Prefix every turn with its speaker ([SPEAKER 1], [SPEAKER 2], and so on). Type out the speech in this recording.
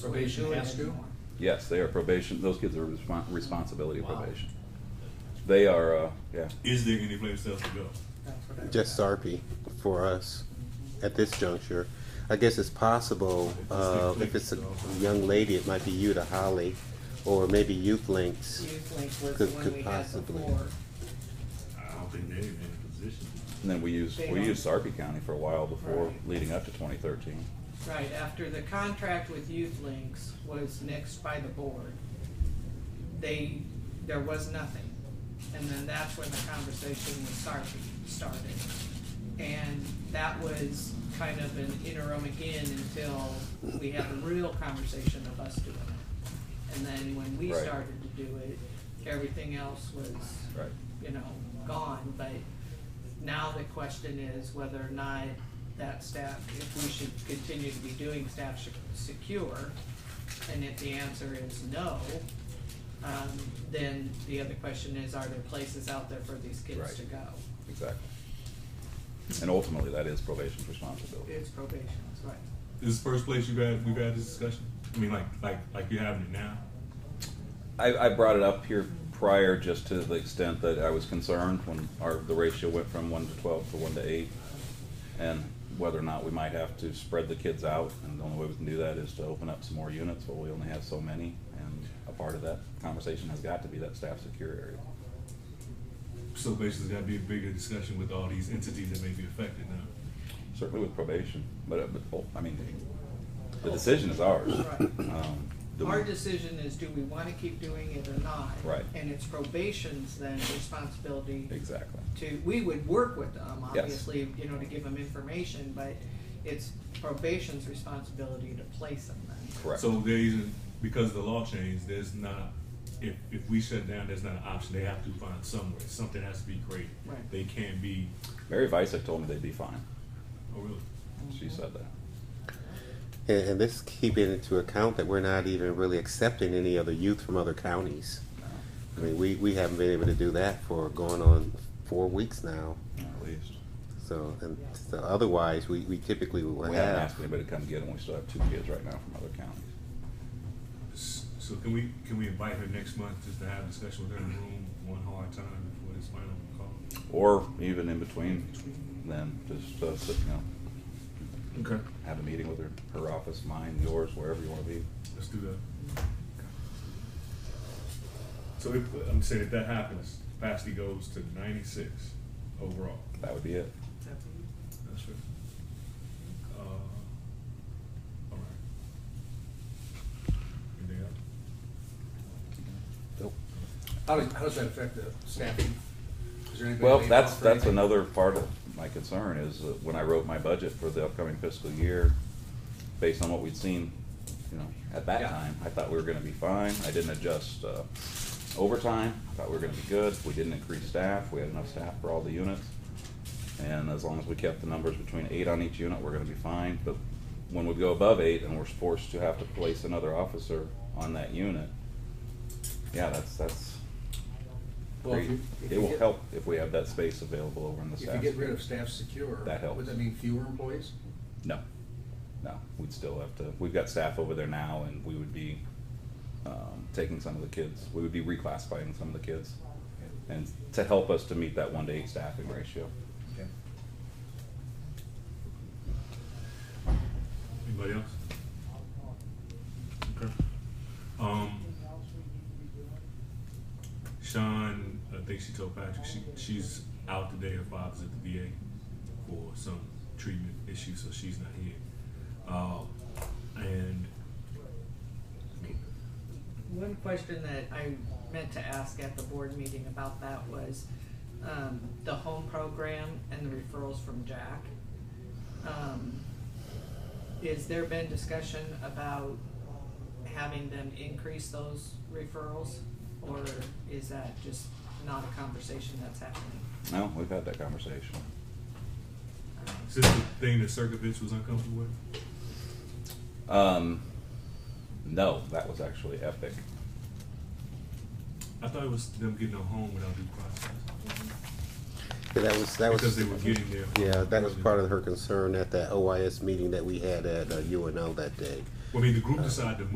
[SPEAKER 1] Probation has to?
[SPEAKER 2] Yes, they are probation, those kids are respon- responsibility of probation. They are, uh, yeah,
[SPEAKER 3] Is there any place else to go?
[SPEAKER 4] just RP for us at this juncture. I guess it's possible, uh, if it's a young lady, it might be you to Holly, or maybe Youth Links.
[SPEAKER 5] Youth Link was the
[SPEAKER 4] Could-
[SPEAKER 5] one
[SPEAKER 4] could
[SPEAKER 5] we had
[SPEAKER 4] possibly.
[SPEAKER 5] before.
[SPEAKER 3] I don't think they're in a position.
[SPEAKER 2] and then we used, we used Sarpy County for a while before,
[SPEAKER 5] Right.
[SPEAKER 2] leading up to twenty thirteen.
[SPEAKER 5] Right, after the contract with Youth Links was nixed by the board, they, there was nothing. And then that's when the conversation with Sarpy started. And that was kind of an interim again until we had the real conversation of us doing it. And then when we
[SPEAKER 2] Right.
[SPEAKER 5] started to do it, everything else was,
[SPEAKER 2] Right.
[SPEAKER 5] you know, gone. But now the question is whether or not that staff, if we should continue to be doing staff sec- secure, and if the answer is no, um, then the other question is, are there places out there for these kids
[SPEAKER 2] Right.
[SPEAKER 5] to go?
[SPEAKER 2] Exactly. And ultimately, that is probation's responsibility.
[SPEAKER 5] It's probation, that's right.
[SPEAKER 3] This is the first place you guys we've had this discussion. I mean, like like like you're having it now.
[SPEAKER 2] I, I brought it up here prior just to the extent that I was concerned when our, the ratio went from one to twelve to one to eight. And whether or not we might have to spread the kids out, and the only way we can do that is to open up some more units, but we only have so many. And a part of that conversation has got to be that staff secure area.
[SPEAKER 3] So basically, it's got to be a bigger discussion with all these entities that may be affected now.
[SPEAKER 2] Certainly with probation, but, uh, but, oh, I mean, the decision is ours.
[SPEAKER 5] Right.
[SPEAKER 2] Um, do we-
[SPEAKER 5] Our decision is, do we wanna keep doing it or not?
[SPEAKER 2] Right.
[SPEAKER 5] And it's probation's then responsibility
[SPEAKER 2] Exactly.
[SPEAKER 5] to, we would work with them,
[SPEAKER 2] Yes.
[SPEAKER 5] obviously, you know, to give them information, but it's probation's responsibility to place them then.
[SPEAKER 2] Correct.
[SPEAKER 3] So there isn't because the law changed. There's not if if we shut down, there's not an option. They have to find somewhere. Something has to be created.
[SPEAKER 5] Right.
[SPEAKER 3] They can't be.
[SPEAKER 2] Mary Vicek told me they'd be fine.
[SPEAKER 3] Oh really?
[SPEAKER 2] She said that.
[SPEAKER 4] And, and this keeping into account that we're not even really accepting any other youth from other counties. I mean, we, we haven't been able to do that for going on four weeks now.
[SPEAKER 2] At least.
[SPEAKER 4] So, and so otherwise, we, we typically
[SPEAKER 2] We
[SPEAKER 4] will
[SPEAKER 2] haven't asked
[SPEAKER 4] have.
[SPEAKER 2] anybody to come get them. We still have two kids right now from other counties.
[SPEAKER 3] S- So can we can we invite her next month just to have a discussion with her in the room one hard time before this final call?
[SPEAKER 2] Or even in between then, just, uh, sit, you know,
[SPEAKER 3] Okay.
[SPEAKER 2] have a meeting with her, her office, mine, yours, wherever you wanna be.
[SPEAKER 3] Let's do that. So if, I'm saying if that happens, capacity goes to ninety-six overall.
[SPEAKER 2] That would be it.
[SPEAKER 3] That's right. Uh, all right. Anything else?
[SPEAKER 1] How does, how does that affect the staffing? Is there anybody
[SPEAKER 2] Well,
[SPEAKER 1] laid
[SPEAKER 2] that's,
[SPEAKER 1] off or
[SPEAKER 2] that's
[SPEAKER 1] anything?
[SPEAKER 2] another part of my concern is that when I wrote my budget for the upcoming fiscal year, based on what we'd seen, you know, at that
[SPEAKER 1] Yeah.
[SPEAKER 2] time, I thought we were gonna be fine. I didn't adjust uh, overtime. I thought we were gonna be good. We didn't increase staff. We had enough staff for all the units. And as long as we kept the numbers between eight on each unit, we're gonna be fine. But when we go above eight and we're forced to have to place another officer on that unit, yeah, that's, that's,
[SPEAKER 1] Well, if you- if
[SPEAKER 2] it
[SPEAKER 1] you
[SPEAKER 2] will
[SPEAKER 1] get-
[SPEAKER 2] help if we have that space available over in the
[SPEAKER 1] If
[SPEAKER 2] staff.
[SPEAKER 1] you get rid of staff secure.
[SPEAKER 2] That helps.
[SPEAKER 1] Would that mean fewer employees?
[SPEAKER 2] No, no, we'd still have to, we've got staff over there now and we would be, um, taking some of the kids, we would be reclassifying some of the kids. And to help us to meet that one to eight staffing ratio.
[SPEAKER 3] Anybody else? Okay. Um, Sean, I think she told Patrick she, she's out today. Her father's at the VA for some treatment issue, so she's not here. Uh, and
[SPEAKER 5] One question that I meant to ask at the board meeting about that was, um, the home program and the referrals from Jack. Um, is there been discussion about having them increase those referrals? Or is that just not a conversation that's happening?
[SPEAKER 2] No, we've had that conversation.
[SPEAKER 3] is this the thing that Circovich was uncomfortable with?
[SPEAKER 2] Um, no, that was actually epic.
[SPEAKER 3] I thought it was them getting a home without due process
[SPEAKER 4] Yeah, That was, that was.
[SPEAKER 3] because they were getting their home
[SPEAKER 4] Yeah, that was
[SPEAKER 3] early.
[SPEAKER 4] part of her concern at that OIS meeting that we had at uh, UNL that day.
[SPEAKER 3] Well, I mean, the group decided to